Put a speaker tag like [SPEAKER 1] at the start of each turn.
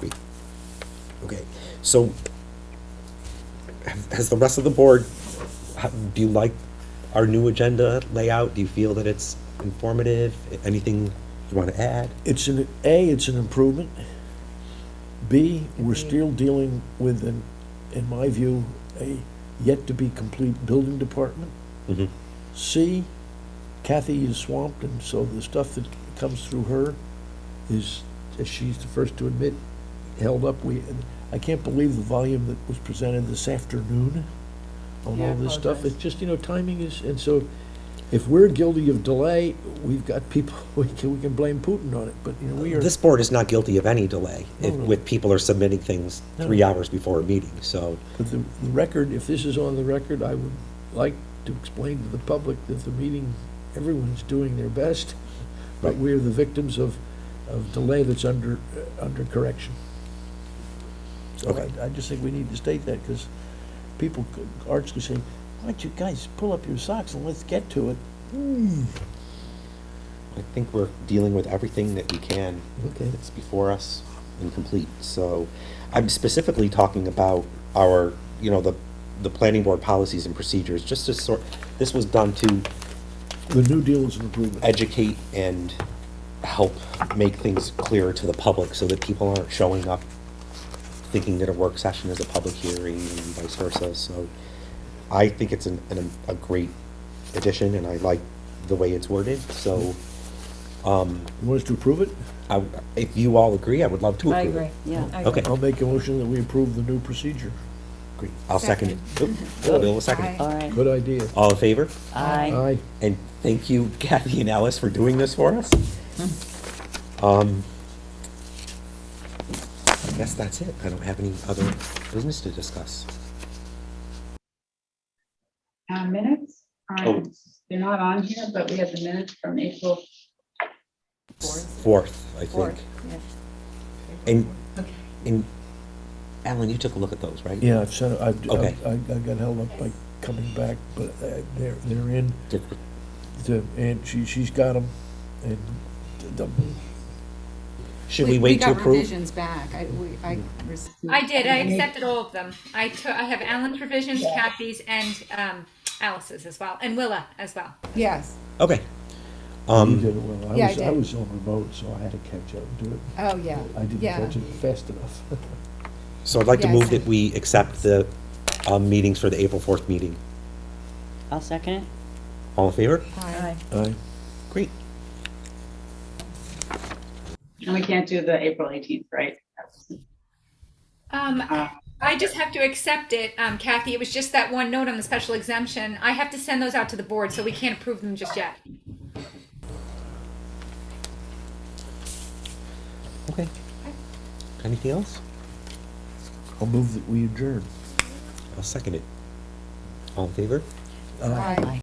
[SPEAKER 1] be. Okay, so has the rest of the board, how- do you like our new agenda layout? Do you feel that it's informative? Anything you want to add?
[SPEAKER 2] It's an, A, it's an improvement. B, we're still dealing with, an, in my view, a yet-to-be-complete building department.
[SPEAKER 1] Mhm.
[SPEAKER 2] C, Kathy is swamped, and so the stuff that comes through her is, as she's the first to admit, held up. We, and I can't believe the volume that was presented this afternoon on
[SPEAKER 3] Yeah, I
[SPEAKER 2] all this stuff.
[SPEAKER 3] apologize.
[SPEAKER 2] It's just, you know, timing is, and so if we're guilty of delay, we've got people, we can, we can blame Putin on it, but, you know, we are.
[SPEAKER 1] This board is not guilty of any delay, if,
[SPEAKER 2] No, no.
[SPEAKER 1] with people are submitting things
[SPEAKER 2] No.
[SPEAKER 1] three hours before a meeting, so.
[SPEAKER 2] But the, the record, if this is on the record, I would like to explain to the public that the meeting, everyone's doing their best, but
[SPEAKER 1] Right.
[SPEAKER 2] we're the victims of, of delay that's under, uh, under correction. So
[SPEAKER 1] Okay.
[SPEAKER 2] I, I just think we need to state that, because people, could- Art's could say, why don't you guys pull up your socks and let's get to it?
[SPEAKER 1] I think we're dealing with everything that we can.
[SPEAKER 2] Okay.
[SPEAKER 1] It's before us and complete, so I'm specifically talking about our, you know, the, the planning board policies and procedures, just to sort, this was done to
[SPEAKER 2] The New Deal is an improvement.
[SPEAKER 1] educate and help make things clearer to the public so that people aren't showing up thinking that a work session is a public hearing and vice versa, so I think it's an, an, a great addition and I like the way it's worded, so, um,
[SPEAKER 2] You want us to approve it?
[SPEAKER 1] I, if you all agree, I would love to
[SPEAKER 3] I
[SPEAKER 1] approve it.
[SPEAKER 3] agree, yeah. I
[SPEAKER 1] Okay.
[SPEAKER 3] agree.
[SPEAKER 2] I'll make a motion that we approve the new procedure.
[SPEAKER 1] Agree. I'll second it. Oop, Bill will second it.
[SPEAKER 3] All right.
[SPEAKER 2] Good idea.
[SPEAKER 1] All in favor?
[SPEAKER 3] Aye.
[SPEAKER 2] Aye.
[SPEAKER 1] And thank you, Kathy and Alice, for doing this for us. Um, I guess that's it. I don't have any other business to discuss.
[SPEAKER 4] Uh, minutes,
[SPEAKER 1] Oh.
[SPEAKER 4] are they're not on here, but we have the minutes from April. Fourth.
[SPEAKER 1] Fourth, I think.
[SPEAKER 3] Fourth, yeah.
[SPEAKER 1] And, and Alan, you took a look at those, right?
[SPEAKER 2] Yeah, I've sent, I've,
[SPEAKER 1] Okay.
[SPEAKER 2] I, I got held up by coming back, but uh, they're, they're in,
[SPEAKER 1] Did-
[SPEAKER 2] the- and she, she's got them, and the,
[SPEAKER 1] Should we wait to
[SPEAKER 5] got
[SPEAKER 1] approve?
[SPEAKER 5] revisions back. I, we, I received.
[SPEAKER 6] I did. I accepted all of them. I took. I have Alan's revisions, Kathy's, and um, Alice's as well, and Willa as well.
[SPEAKER 5] Yes.
[SPEAKER 1] Okay.
[SPEAKER 2] you
[SPEAKER 1] Um,
[SPEAKER 2] did it well. I
[SPEAKER 5] Yeah, I
[SPEAKER 2] was, I
[SPEAKER 5] did.
[SPEAKER 2] was on remote, so I had to catch up and do it.
[SPEAKER 5] Oh, yeah.
[SPEAKER 2] I didn't
[SPEAKER 5] Yeah.
[SPEAKER 2] catch it fast enough.
[SPEAKER 1] so I'd like to
[SPEAKER 5] Yeah, I
[SPEAKER 1] move that
[SPEAKER 5] second.
[SPEAKER 1] we accept the, um, meetings for the April fourth meeting.
[SPEAKER 7] I'll second it.
[SPEAKER 1] All in favor?
[SPEAKER 5] Aye.
[SPEAKER 2] Aye.
[SPEAKER 1] Great.
[SPEAKER 4] And we can't do the April eighteenth, right?
[SPEAKER 6] Um, I just have to accept it, um, Kathy. It was just that one note on the special exemption. I have to send those out to the board, so we can't approve them just yet.
[SPEAKER 1] Okay. Anything else?
[SPEAKER 2] I'll move that we adjourn.
[SPEAKER 1] I'll second it. All in favor?
[SPEAKER 5] Aye.